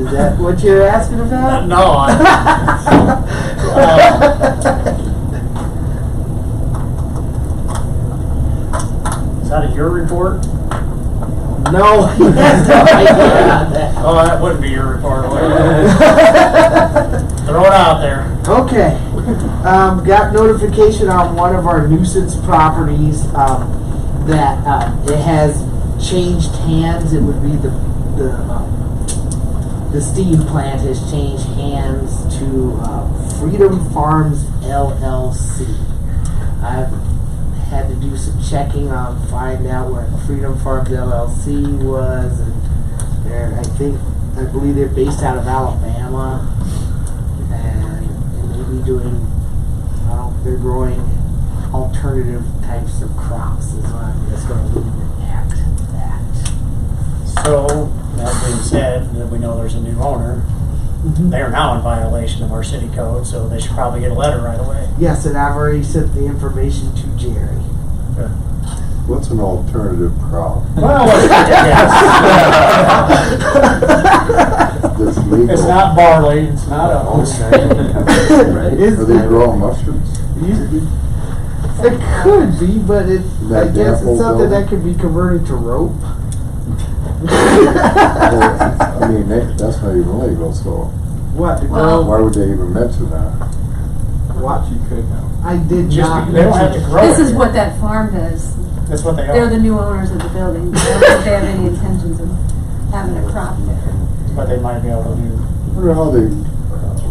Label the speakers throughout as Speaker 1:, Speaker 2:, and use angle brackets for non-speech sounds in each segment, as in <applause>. Speaker 1: Is that what you're asking about? <laughs>
Speaker 2: No, <laughs>
Speaker 1: Um,
Speaker 2: I, is that your report?
Speaker 1: <laughs> No, he has no idea
Speaker 2: Oh, that wouldn't be your report, would it? <laughs>
Speaker 1: about <laughs> that.
Speaker 2: Throw it out there.
Speaker 1: Okay, um, got notification on one of our nuisance properties, um, that, uh, it has changed hands, it would be the, the, um, the steam plant has changed hands to, uh, Freedom Farms LLC. I've had to do some checking on, find out what Freedom Farms LLC was, and they're, I think, I believe they're based out of Alabama and and they be doing, well, they're growing alternative types of crops is what I'm just gonna leave it at that.
Speaker 2: So, that being said, that we know there's a new owner, they are now in violation of our city code, so they should probably get a letter right away.
Speaker 1: Yes, and I've already sent the information to Jerry.
Speaker 3: What's an alternative crop?
Speaker 2: <laughs> Well, yes. <laughs>
Speaker 3: That's legal.
Speaker 2: It's not barley, it's not oats.
Speaker 1: Is
Speaker 3: Are they
Speaker 1: that-
Speaker 3: growing mushrooms?
Speaker 1: You- It could be, but it, I
Speaker 3: That
Speaker 1: guess
Speaker 3: dample
Speaker 1: it's something
Speaker 3: building?
Speaker 1: that could be converted to rope.
Speaker 3: <laughs> Well, I mean, that- that's not even legal, so
Speaker 1: What, to
Speaker 3: why
Speaker 1: grow,
Speaker 3: would they even mention that?
Speaker 1: what,
Speaker 4: You could now.
Speaker 1: I did
Speaker 2: <laughs> Just
Speaker 1: not.
Speaker 2: be- they don't have to
Speaker 1: mention-
Speaker 2: grow
Speaker 5: This
Speaker 2: it
Speaker 5: is
Speaker 2: yet.
Speaker 5: what that farm does.
Speaker 2: That's what they
Speaker 5: They're the
Speaker 2: are,
Speaker 5: new owners of the building. I don't think they have any intentions of having a crop there.
Speaker 2: but they might be able to do.
Speaker 3: I wonder how they,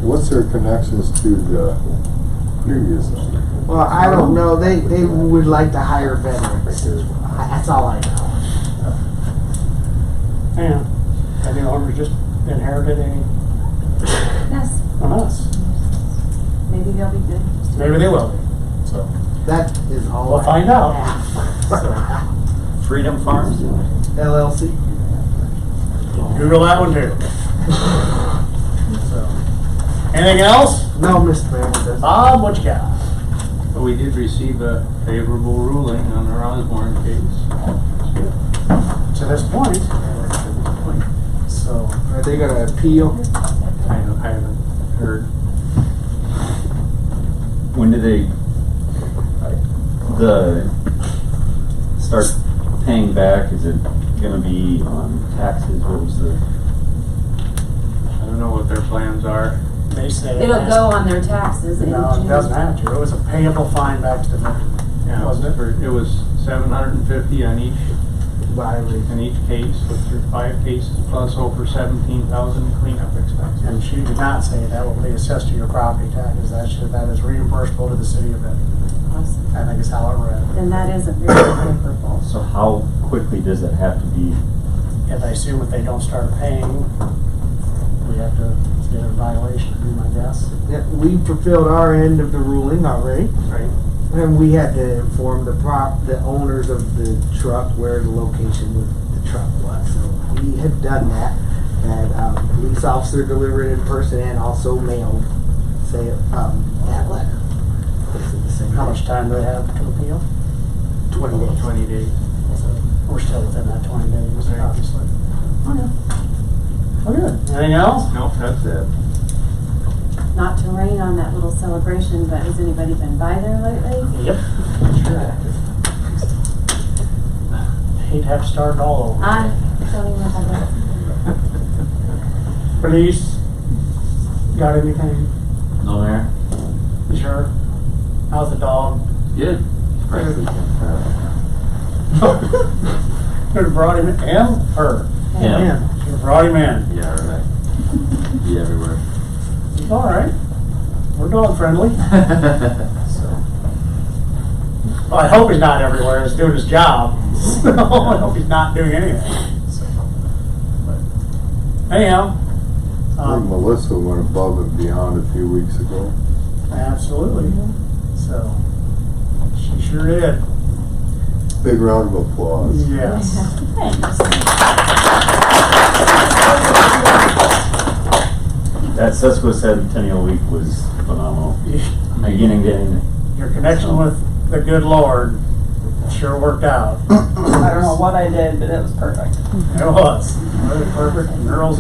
Speaker 3: what's their connections to the previous owner?
Speaker 1: Well, I don't know, they, they would like to hire veterans as well, I- that's all I know.
Speaker 2: Yeah, I think Homer just inherited a,
Speaker 5: Yes,
Speaker 2: from us.
Speaker 5: maybe they'll be good.
Speaker 2: Maybe they will be, so.
Speaker 1: That is all.
Speaker 2: We'll
Speaker 1: I
Speaker 2: find out.
Speaker 1: have.
Speaker 2: <laughs>
Speaker 6: Freedom Farms?
Speaker 1: LLC.
Speaker 2: Google that one too. So, Anything else?
Speaker 1: No, Mr. Mayor, that's
Speaker 2: Bob, what you got?
Speaker 4: But we did receive a favorable ruling on our Osborne case.
Speaker 2: To this point. So,
Speaker 1: Are they gonna appeal?
Speaker 4: I haven't, I haven't heard.
Speaker 6: When do they, the, start paying back? Is it gonna be on taxes? What was the,
Speaker 4: I don't know what their plans are.
Speaker 2: they said.
Speaker 5: It'll go on their taxes in
Speaker 2: No, it doesn't
Speaker 5: June.
Speaker 2: have to. It was a payable fine back to the vendor.
Speaker 4: Yeah,
Speaker 2: Wasn't it?
Speaker 4: for- It was seven hundred and fifty on each,
Speaker 1: Violate.
Speaker 4: in each case, which are five cases, plus over seventeen thousand cleanup expenses.
Speaker 2: And she did not say that will be assessed to your property taxes. That should, that is reimbursable to the city of Benton.
Speaker 5: Awesome.
Speaker 2: I think is how it read.
Speaker 5: Then that is a very favorable.
Speaker 6: so how quickly does it have to be?
Speaker 2: If I assume if they don't start paying, we have to get a violation, would be my guess.
Speaker 1: Yeah, We fulfilled our end of the ruling already,
Speaker 2: Right.
Speaker 1: and we had to inform the prop, the owners of the truck where the location of the truck was. So we had done that, and, um, police officer delivered in person and also mailed, say, um, that letter. Basically the same
Speaker 2: How much
Speaker 1: thing.
Speaker 2: time do they have to appeal?
Speaker 1: Twenty days.
Speaker 4: Twenty days.
Speaker 2: So We're still within that twenty days,
Speaker 4: Right.
Speaker 2: obviously. Okay. Well, good. Anything else?
Speaker 4: Nope, that's it.
Speaker 5: Not to rain on that little celebration, but has anybody been by there lately?
Speaker 2: Yep. Hate to have to start all over.
Speaker 5: I don't even know how to.
Speaker 4: <laughs>
Speaker 2: Police, got anything?
Speaker 6: No, Mayor?
Speaker 2: You Sure. How's the dog?
Speaker 4: Good.
Speaker 2: <laughs> Should have brought him in, her.
Speaker 6: Yeah.
Speaker 2: Should have brought him in.
Speaker 6: Yeah, right. Be everywhere.
Speaker 2: He's all right. We're dog friendly. So. Well, I hope he's not everywhere. He's doing his job. <laughs> So I hope he's not doing anything. So, but Anyhow,
Speaker 3: I think
Speaker 2: um,
Speaker 3: Melissa went above and beyond a few weeks ago.
Speaker 2: absolutely. So she sure did.
Speaker 3: Big round of applause.
Speaker 2: Yes.
Speaker 7: <laughs>
Speaker 6: That Sesquicentennial Week was phenomenal, beginning to end.
Speaker 2: Your connection with the good Lord sure worked out.
Speaker 7: I don't know what I did, but it was perfect.
Speaker 2: It was. Really perfect. Girls